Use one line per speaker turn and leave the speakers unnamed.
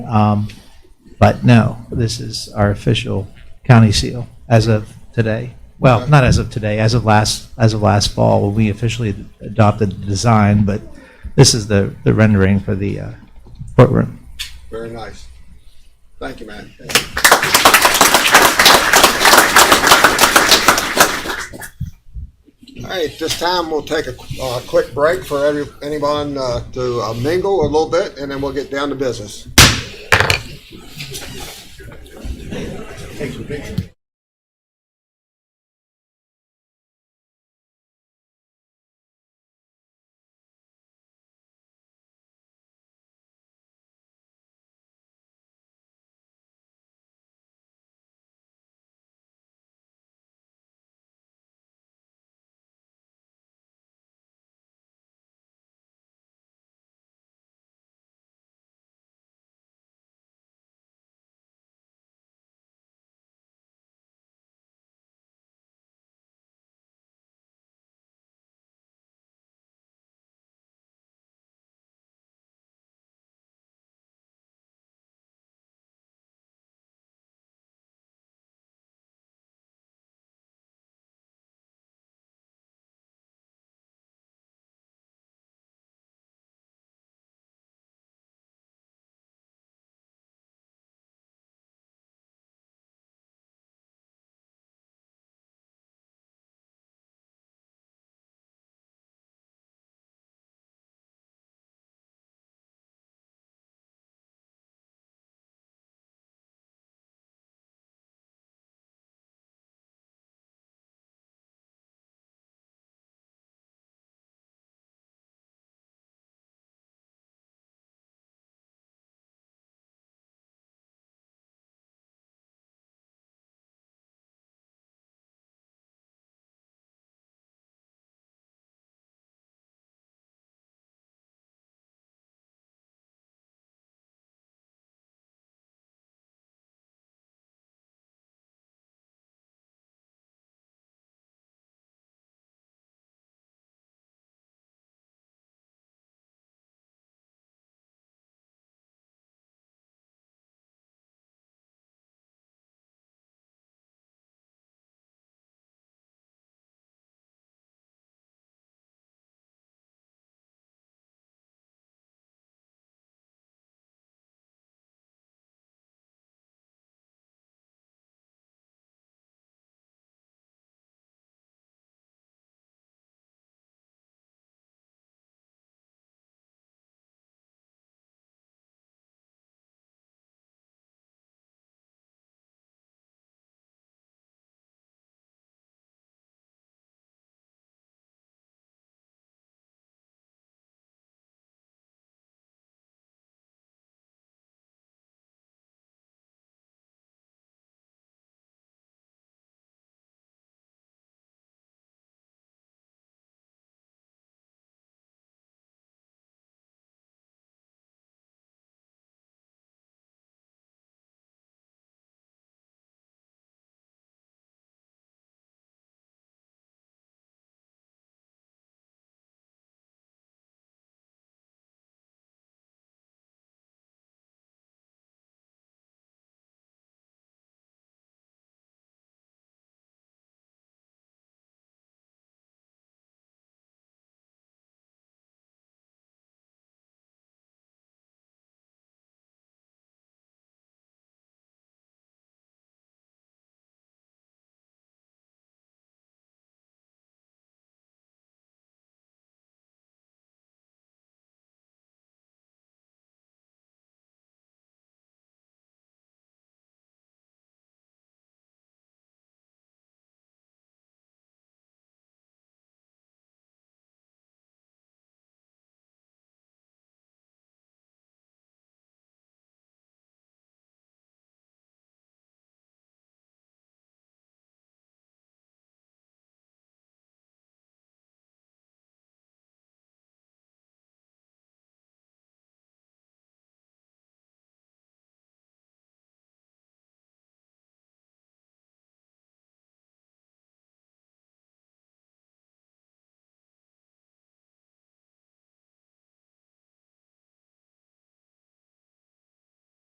Um, But no, this is our official county seal as of today. Well, not as of today, as of last, as of last fall, when we officially adopted the design, but this is the, the rendering for the uh, courtroom.
Very nice. Thank you, man. All right, this time we'll take a uh, quick break for every- anyone uh, to uh, mingle a little bit, and then we'll get down to business.